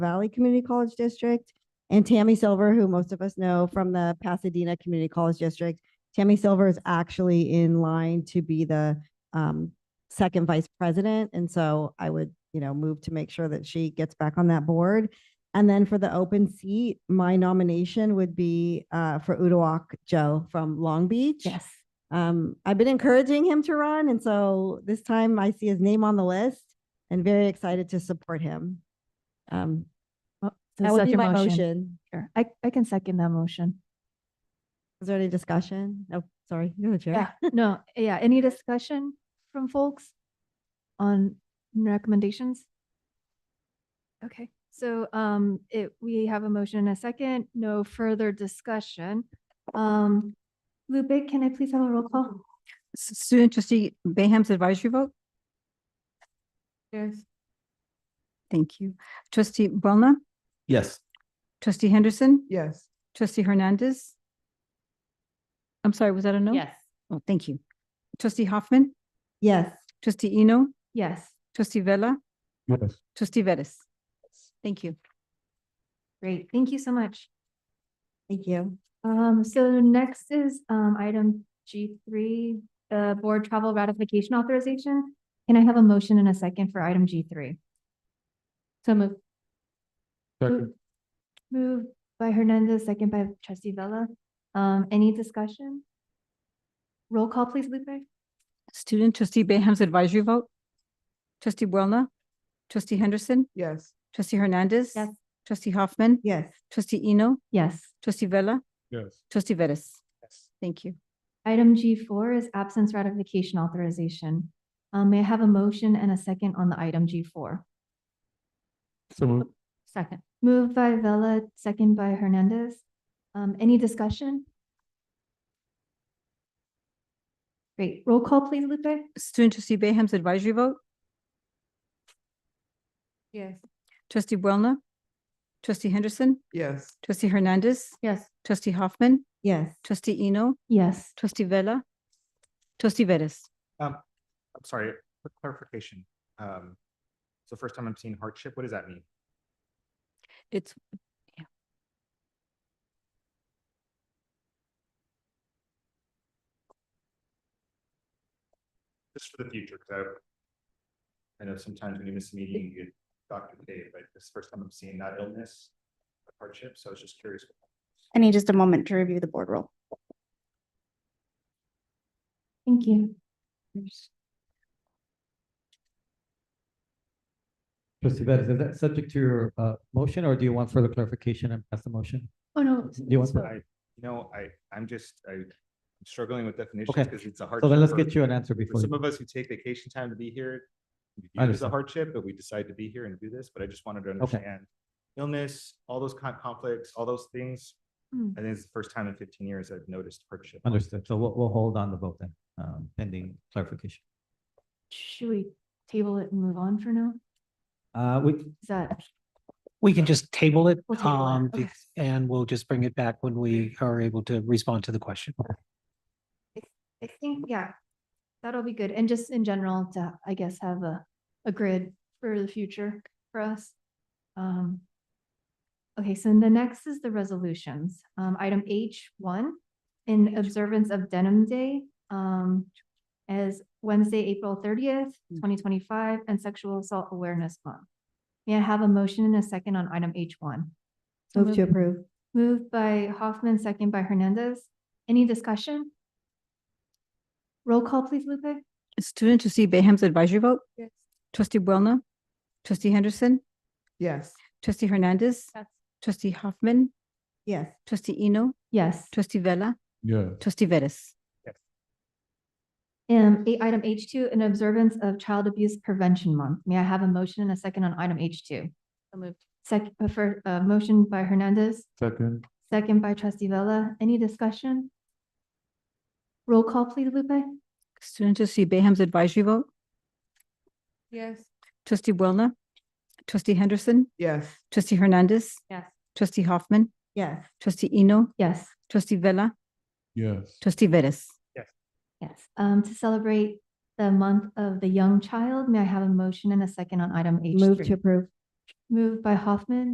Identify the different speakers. Speaker 1: Valley Community College District, and Tammy Silver, who most of us know from the Pasadena Community College District. Tammy Silver is actually in line to be the um, second vice president, and so I would, you know, move to make sure that she gets back on that board. And then for the open seat, my nomination would be uh, for Udoak Joe from Long Beach.
Speaker 2: Yes.
Speaker 1: Um, I've been encouraging him to run, and so this time I see his name on the list and very excited to support him. Um,
Speaker 2: So
Speaker 1: that would
Speaker 2: such
Speaker 1: be
Speaker 2: a
Speaker 1: my motion.
Speaker 2: Sure. I, I can second that motion.
Speaker 1: Is there any discussion? Oh, sorry, you're the
Speaker 2: Yeah,
Speaker 1: chair.
Speaker 2: no, yeah. Any discussion from folks on recommendations? Okay, so um, it, we have a motion and a second, no further discussion. Um, Lupe, can I please have a roll call?
Speaker 3: S- Student trustee Bayham's advisory vote?
Speaker 2: Yes.
Speaker 3: Thank you. Trustee Bona,
Speaker 4: Yes.
Speaker 3: trustee Henderson,
Speaker 4: Yes.
Speaker 3: trustee Hernandez. I'm sorry, was that a no?
Speaker 5: Yes.
Speaker 3: Oh, thank you. Trustee Hoffman,
Speaker 1: Yes,
Speaker 3: trustee Eno,
Speaker 2: Yes,
Speaker 3: trustee Vella,
Speaker 4: Yes.
Speaker 3: trustee Vettis. Thank you.
Speaker 2: great. Thank you so much.
Speaker 1: thank you.
Speaker 2: Um, so next is, um, item G three, the board travel ratification authorization. Can I have a motion and a second for item G three? So move.
Speaker 6: Mm.
Speaker 4: Second.
Speaker 2: Moved by Hernandez, second by trustee Vella. Um, any discussion? Roll call, please, Lupe.
Speaker 3: Student trustee Bayham's advisory vote? Trustee Bona, trustee Henderson,
Speaker 4: Yes.
Speaker 3: trustee Hernandez.
Speaker 2: Yes.
Speaker 3: Trustee Hoffman,
Speaker 1: Yes,
Speaker 3: trustee Eno,
Speaker 2: Yes.
Speaker 3: trustee Vella,
Speaker 4: Yes.
Speaker 3: trustee Vettis. Thank you.
Speaker 2: Item G four is absence ratification authorization. Um, may I have a motion and a second on the item G four?
Speaker 4: So moved.
Speaker 2: Second. Moved by Vella, second by Hernandez. Um, any discussion? Great. Roll call, please, Lupe.
Speaker 3: Student trustee Bayham's advisory vote?
Speaker 2: Yes.
Speaker 3: Trustee Bona, trustee Henderson,
Speaker 4: Yes.
Speaker 3: Trustee Hernandez,
Speaker 2: Yes.
Speaker 3: trustee Hoffman,
Speaker 1: yes.
Speaker 3: trustee Eno,
Speaker 2: Yes.
Speaker 3: trustee Vella, trustee Vettis.
Speaker 7: I'm sorry, quick clarification. Um, so first time I'm seeing hardship, what does that mean?
Speaker 3: It's,
Speaker 7: Just for the future, because I I know sometimes when you miss a meeting, you get Dr. Dave, but this is the first time I'm seeing that illness hardship, so I was just curious.
Speaker 8: I need just a moment to review the board roll.
Speaker 2: Thank you.
Speaker 6: Trustee Bettis, is that subject to your uh motion or do you want further clarification and pass the motion?
Speaker 2: Oh, no.
Speaker 6: Do you want,
Speaker 7: I, you know, I, I'm just, I'm struggling with definitions
Speaker 6: Okay.
Speaker 7: because it's a hardship.
Speaker 6: so then let's
Speaker 7: for-
Speaker 6: get you an answer
Speaker 7: For
Speaker 6: before.
Speaker 7: some
Speaker 6: you-
Speaker 7: of us who take vacation time to be here,
Speaker 6: I
Speaker 7: it's a
Speaker 6: understand.
Speaker 7: hardship, but we decide to be here and do this, but I just wanted to
Speaker 6: Okay.
Speaker 7: understand illness, all those kind of conflicts, all those things.
Speaker 2: Hmm.
Speaker 7: I think it's the first time in fifteen years I've noticed hardship.
Speaker 6: Understood. So we'll, we'll hold on the vote then, um, pending clarification.
Speaker 2: Should we table it and move on for now?
Speaker 6: Uh, we,
Speaker 2: Is that,
Speaker 9: We can just table it,
Speaker 2: We'll table it,
Speaker 9: um,
Speaker 2: okay.
Speaker 9: bec- and we'll just bring it back when we are able to respond to the question.
Speaker 2: I think, yeah, that'll be good. And just in general to, I guess, have a, a grid for the future for us. Um, okay, so the next is the resolutions. Um, item H one, in observance of Denim Day, um, as Wednesday, April thirtieth,
Speaker 1: Hmm.
Speaker 2: twenty twenty-five, and Sexual Assault Awareness Month. May I have a motion and a second on item H one?
Speaker 1: Move to approve.
Speaker 2: Moved by Hoffman, second by Hernandez. Any discussion? Roll call, please, Lupe.
Speaker 3: student trustee Bayham's advisory vote?
Speaker 2: Yes.
Speaker 3: Trustee Bona, trustee Henderson,
Speaker 4: Yes.
Speaker 3: trustee Hernandez,
Speaker 2: Yes.
Speaker 3: trustee Hoffman,
Speaker 1: Yes,
Speaker 3: trustee Eno,
Speaker 2: Yes.
Speaker 3: trustee Vella,
Speaker 4: Yeah.
Speaker 3: trustee Vettis.
Speaker 2: Um, eight, item H two, in observance of Child Abuse Prevention Month. May I have a motion and a second on item H two? Moved. Second, uh, for, uh, motion by Hernandez,
Speaker 4: Second.
Speaker 2: second by trustee Vella. Any discussion? Roll call, please, Lupe.
Speaker 3: Student trustee Bayham's advisory vote?
Speaker 2: Yes.
Speaker 3: Trustee Bona, trustee Henderson,
Speaker 4: Yes.
Speaker 3: trustee Hernandez,
Speaker 2: Yes.
Speaker 3: trustee Hoffman,
Speaker 1: yes,
Speaker 3: trustee Eno,
Speaker 2: Yes.
Speaker 3: trustee Vella,
Speaker 4: Yes.
Speaker 3: trustee Vettis.
Speaker 2: Yes, um, to celebrate the month of the young child, may I have a motion and a second on item H
Speaker 1: move to
Speaker 2: three?
Speaker 1: approve.
Speaker 2: Moved by Hoffman,